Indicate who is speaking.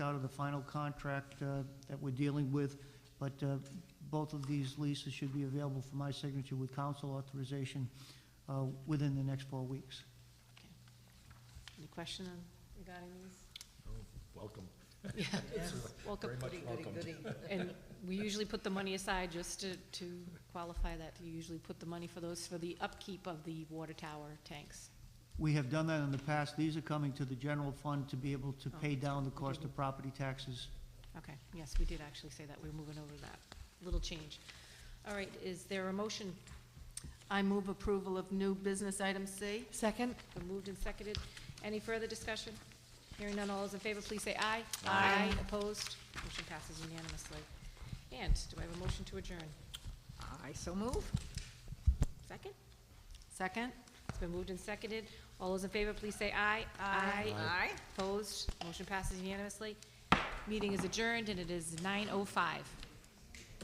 Speaker 1: out of the final contract uh, that we're dealing with, but uh, both of these leases should be available for my signature with council authorization uh, within the next four weeks.
Speaker 2: Any question on- regarding these?
Speaker 3: Welcome.
Speaker 2: Welcome.
Speaker 3: Very much welcome.
Speaker 2: And we usually put the money aside just to, to qualify that. You usually put the money for those, for the upkeep of the water tower tanks.
Speaker 1: We have done that in the past. These are coming to the general fund to be able to pay down the cost of property taxes.
Speaker 2: Okay, yes, we did actually say that. We We're moving over that. Little change. All right, is there a motion? I move approval of new business item C.
Speaker 4: Second?
Speaker 2: Been moved and seconded. Any further discussion? Hearing none, all those in favor, please say aye.
Speaker 4: Aye.
Speaker 2: Opposed? Motion passes unanimously. And do I have a motion to adjourn?
Speaker 4: I so move.
Speaker 2: Second? Second. It's been moved and seconded. All those in favor, please say aye.
Speaker 4: Aye.
Speaker 2: Opposed? Motion passes unanimously. Meeting is adjourned, and it is nine oh five.